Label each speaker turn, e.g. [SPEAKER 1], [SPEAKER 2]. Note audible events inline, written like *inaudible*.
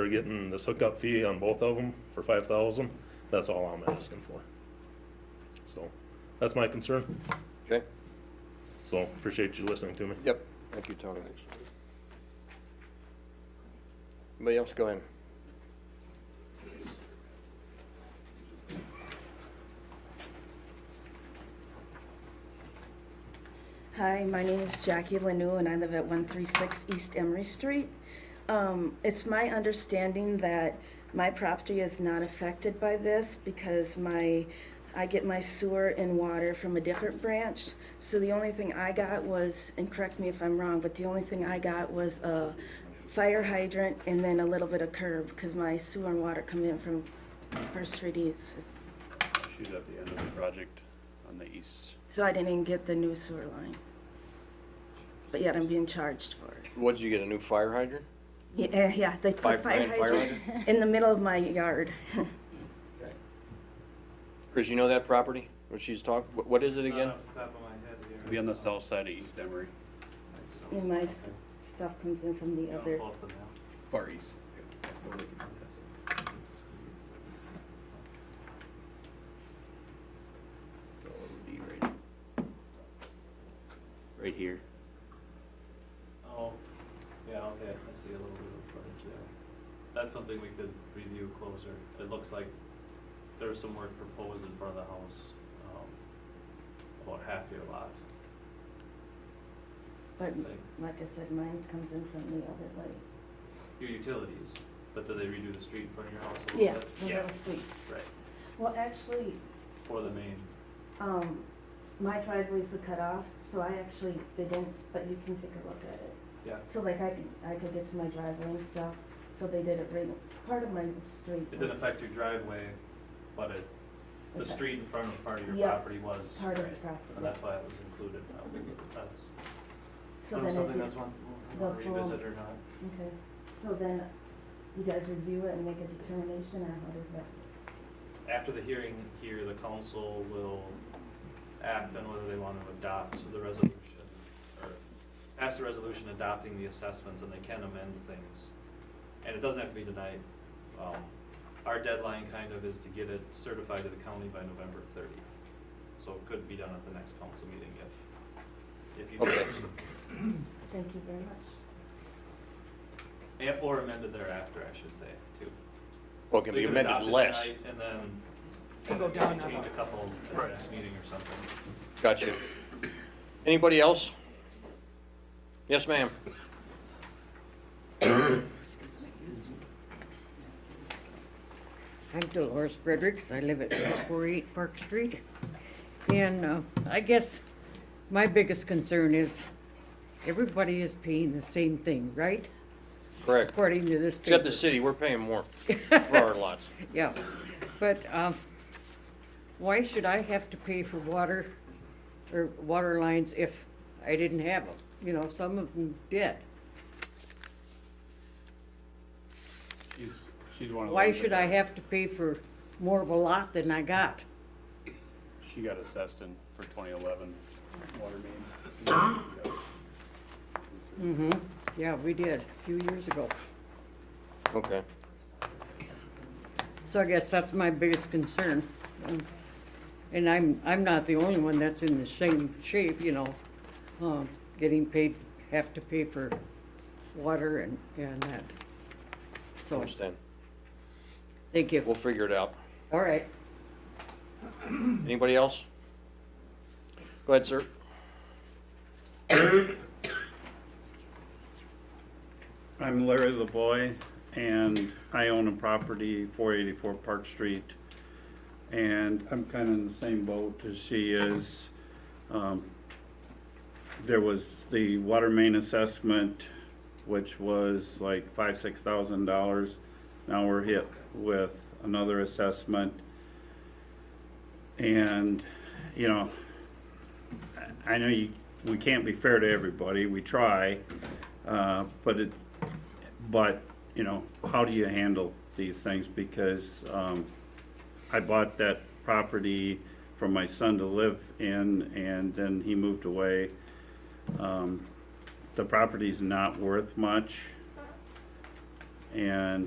[SPEAKER 1] they're getting this hookup fee on both of them for five thousand, that's all I'm asking for. So, that's my concern,
[SPEAKER 2] Okay,
[SPEAKER 1] so appreciate you listening to me.
[SPEAKER 2] yep, thank you, Tony. Anybody else go in?
[SPEAKER 3] Hi, my name is Jackie Lanou, and I live at 136 East Emery Street. Um, It's my understanding that my property is not affected by this because my, I get my sewer and water from a different branch. So the only thing I got was, and correct me if I'm wrong, but the only thing I got was a fire hydrant and then a little bit of curb because my sewer and water come in from First Street East.
[SPEAKER 4] She's at the end of the project on the east.
[SPEAKER 3] So I didn't even get the new sewer line. But yet I'm being charged for it.
[SPEAKER 2] What, did you get a new fire hydrant?
[SPEAKER 3] Yeah, uh, yeah, they
[SPEAKER 2] Five
[SPEAKER 3] put fire
[SPEAKER 2] grand fire
[SPEAKER 3] hydrant in the middle
[SPEAKER 2] *laughs*
[SPEAKER 3] of my yard. *laughs*
[SPEAKER 2] Chris, you know that property, what she's talking, what, what is it again?
[SPEAKER 5] Off the top of my head here.
[SPEAKER 4] Be on the south side of East Emery,
[SPEAKER 3] And my st- stuff comes in from the
[SPEAKER 5] I'll
[SPEAKER 3] other.
[SPEAKER 5] pull up the map.
[SPEAKER 4] far east. So it would be right- Right here.
[SPEAKER 5] Oh, yeah, okay, I see a little bit of footage there. That's something we could review closer. It looks like there was some work proposed in front of the house, um, about half your lot,
[SPEAKER 3] But
[SPEAKER 5] I
[SPEAKER 3] m-
[SPEAKER 5] think.
[SPEAKER 3] like I said, mine comes in from the other way.
[SPEAKER 5] Your utilities, but did they redo the street in front of your house a little
[SPEAKER 3] Yeah,
[SPEAKER 5] bit?
[SPEAKER 3] the little street.
[SPEAKER 5] Right,
[SPEAKER 3] Well, actually,
[SPEAKER 5] for the main,
[SPEAKER 3] um, my driveway's a cutoff, so I actually didn't, but you can take a look at it.
[SPEAKER 5] yeah.
[SPEAKER 3] So like I could, I could get to my driveway and stuff, so they did it right, part of my street.
[SPEAKER 5] It didn't
[SPEAKER 3] was
[SPEAKER 5] affect your driveway, but it, the
[SPEAKER 3] Okay.
[SPEAKER 5] street in front of part of your
[SPEAKER 3] Yeah,
[SPEAKER 5] property was.
[SPEAKER 3] Part of the
[SPEAKER 5] right, And
[SPEAKER 3] property.
[SPEAKER 5] that's why it was included now, that's.
[SPEAKER 3] So then
[SPEAKER 5] Um, Something
[SPEAKER 3] it-
[SPEAKER 5] that's one,
[SPEAKER 3] Well,
[SPEAKER 5] want to revisit
[SPEAKER 3] for-
[SPEAKER 5] or not.
[SPEAKER 3] Okay, so then you guys review it and make a determination, or how does that?
[SPEAKER 5] After the hearing here, the council will act on whether they want to adopt the resolution or pass the resolution adopting the assessments and they can amend things. And it doesn't have to be tonight. Um, Our deadline kind of is to get it certified to the county by November thirtieth. So it could be done at the next council meeting if, if you.
[SPEAKER 2] Okay.
[SPEAKER 3] Thank you very much.
[SPEAKER 5] And- Or amended thereafter, I should say, too.
[SPEAKER 2] Well, it can
[SPEAKER 5] They
[SPEAKER 2] be
[SPEAKER 5] could adopt
[SPEAKER 2] amended
[SPEAKER 5] it
[SPEAKER 2] less,
[SPEAKER 5] tonight And then.
[SPEAKER 6] And go
[SPEAKER 5] and
[SPEAKER 6] down
[SPEAKER 5] Change
[SPEAKER 6] another.
[SPEAKER 5] a couple at the next meeting or something.
[SPEAKER 2] gotcha. Anybody else? Yes, ma'am.
[SPEAKER 7] I'm Dolores Fredericks. I live at 448 Park Street. And uh, I guess my biggest concern is everybody is paying the same thing, right?
[SPEAKER 2] Correct,
[SPEAKER 7] According to this
[SPEAKER 2] except the
[SPEAKER 7] paper.
[SPEAKER 2] city, we're paying more for our lots.
[SPEAKER 7] Yeah, but um, why should I have to pay for water or water lines if I didn't have them? You know, some of them did.
[SPEAKER 4] She's, she's one of the.
[SPEAKER 7] Why
[SPEAKER 4] ones that
[SPEAKER 7] should I
[SPEAKER 4] got-
[SPEAKER 7] have to pay for more of a lot than I got?
[SPEAKER 4] She got assessed in for twenty eleven water main.
[SPEAKER 7] Mm-hmm, yeah, we did, a few years ago.
[SPEAKER 2] *laughs* Okay,
[SPEAKER 7] So I guess that's my biggest concern. Um, And I'm, I'm not the only one that's in the same shape, you know, um, getting paid, have to pay for water and, and that. So,
[SPEAKER 2] understand,
[SPEAKER 7] thank
[SPEAKER 2] we'll
[SPEAKER 7] you.
[SPEAKER 2] figure it out.
[SPEAKER 7] All right.
[SPEAKER 2] Anybody else? Go ahead, sir.
[SPEAKER 8] I'm Larry LaVoy, and I own a property, 484 Park Street. And I'm kind of in the same boat as she is. Um, There was the water main assessment, which was like five, six thousand dollars. Now we're hit with another assessment. And, you know, I- I know you, we can't be fair to everybody, we try, uh, but it, but, you know, how do you handle these things? Because, um, I bought that property for my son to live in and then he moved away. Um, the property's not worth much. And